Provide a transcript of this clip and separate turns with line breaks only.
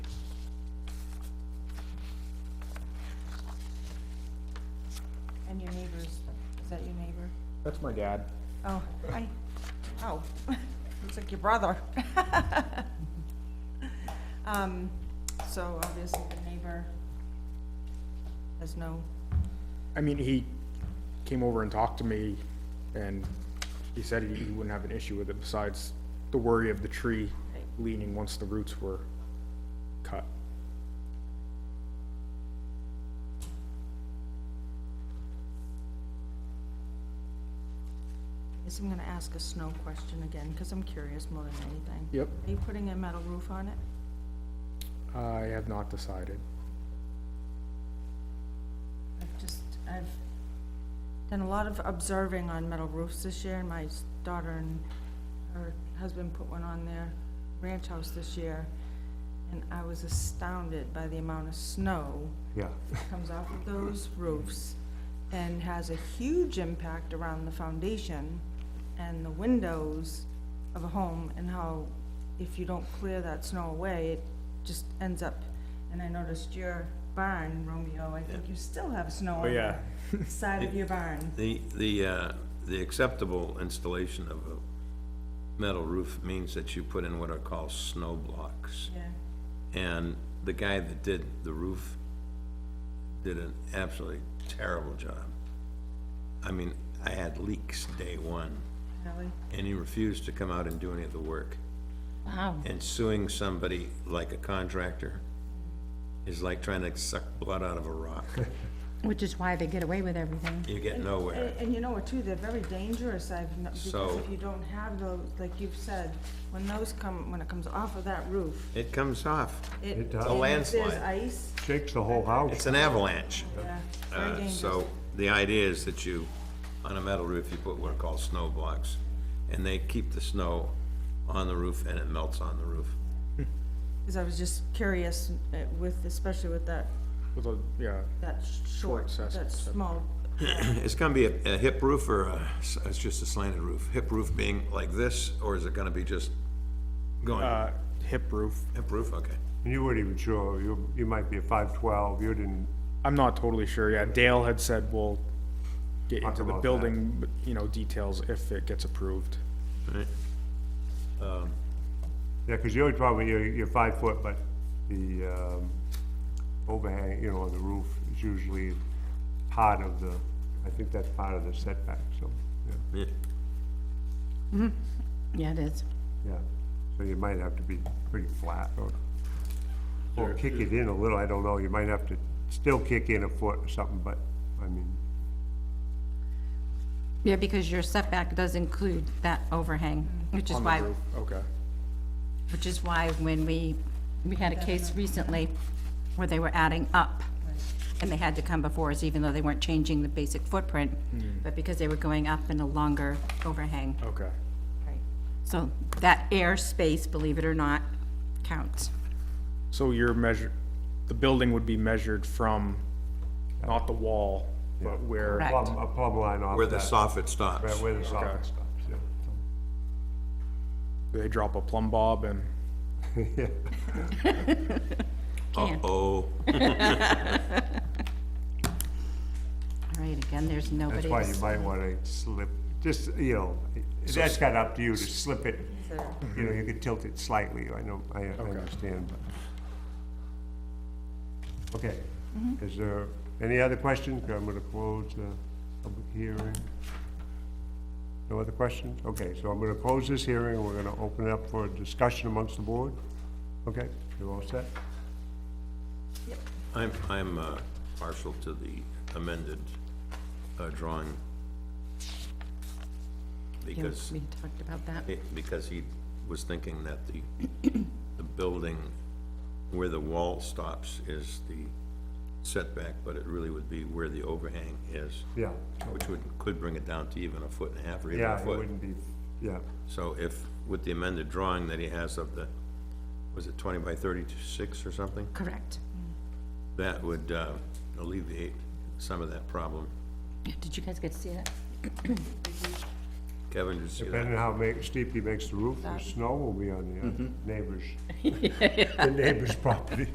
your neighbor's, is that your neighbor?
That's my dad.
Oh, I, oh, looks like your brother. Um, so obviously the neighbor has no,
I mean, he came over and talked to me, and he said he, he wouldn't have an issue with it, besides the worry of the tree
Right.
leaning once the roots were cut.
I guess I'm gonna ask a snow question again, cause I'm curious more than anything.
Yep.
Are you putting a metal roof on it?
I have not decided.
I've just, I've done a lot of observing on metal roofs this year, and my s- daughter and her husband put one on their ranch house this year, and I was astounded by the amount of snow
Yeah.
that comes off of those roofs and has a huge impact around the foundation and the windows of a home, and how if you don't clear that snow away, it just ends up, and I noticed your barn, Romeo, I think you still have snow
Oh,
on
yeah.
the side of your barn.
The, the, uh, the acceptable installation of a metal roof means that you put in what are called snow blocks.
Yeah,
And the guy that did the roof did an absolutely terrible job. I mean, I had leaks day one,
Ellie,
and he refused to come out and do any of the work.
Oh.
Wow. And suing somebody like a contractor is like trying to suck blood out of a rock.
Which is why they get away with everything.
You get nowhere.
And, and you know what, too, they're very dangerous, I've, kno- because
So-
if you don't have those, like you've said, when those come, when it comes off of that roof,
It comes off.
it.
It does.
A
and if There's
landslide.
ice,
Shakes the whole house.
It's an avalanche.
yeah, very
Uh,
dangerous.
So the idea is that you, on a metal roof, you put what are called snow blocks, and they keep the snow on the roof and it melts on the roof.
Because I was just curious uh, with, especially with that,
With a, yeah,
that sh- short,
access-
that small,
It's gonna be a a hip roof or a s- it's just a slanted roof? Hip roof being like this, or is it gonna be just going,
uh, hip roof.
hip roof, okay?
You weren't even sure. You, you might be a five-twelve. You didn't,
I'm not totally sure yet. Dale had said we'll get
Talk
into the
about that.
building, you know, details if it gets approved.
Right.
yeah, because you're probably, you're, you're five foot, but the, um, overhang, you know, on the roof is usually part of the, I think that's part of the setback, so, yeah,
Yeah.
Yeah, it is.
yeah. So you might have to be pretty flat or, or kick it in a little. I don't know. You might have to still kick in a foot or something, but, I mean,
Yeah, because your setback does include that overhang, which is
On the
why,
roof, okay.
which is why when we, we had a case recently where they were adding up, and they had to come before us, even though they weren't changing the basic footprint, but because they were going up in a longer overhang.
Okay.
right,
So that air space, believe it or not, counts.
So you're measured, the building would be measured from, not the wall, but where.
Correct.
plumb, a plumb line off
Where the
that,
soffit stops.
Right, where the soffit stops, yeah.
They drop a plumb bob and,
Can.
Uh-oh.
All right, again, there's
That's
nobody.
why you
else.
might wanna slip, just, you know, that's kinda up to you to slip it, you know, you could tilt it slightly, I know, I I understand, but. Okay, is there any other questions? I'm gonna close the public hearing. No other questions? Okay, so I'm gonna close this hearing, and we're gonna open it up for a discussion amongst the board. Okay, you're all set?
I'm, I'm uh, partial to the amended uh, drawing.
Yeah,
Because
We talked about that.
It- Because he was thinking that the, the building where the wall stops is the setback, but it really would be where the overhang is,
Yeah,
which would, could bring it down to even a foot and a half or even a
yeah, it
foot.
wouldn't be, yeah,
So if, with the amended drawing that he has of the, was it twenty by thirty-six or something?
Correct.
That would uh, alleviate some of that problem.
Yeah, Did you guys get to see that?
Kevin, did you see that?
Depending how ma- steep he makes the roof, the snow will be on the uh, neighbor's, the neighbor's property.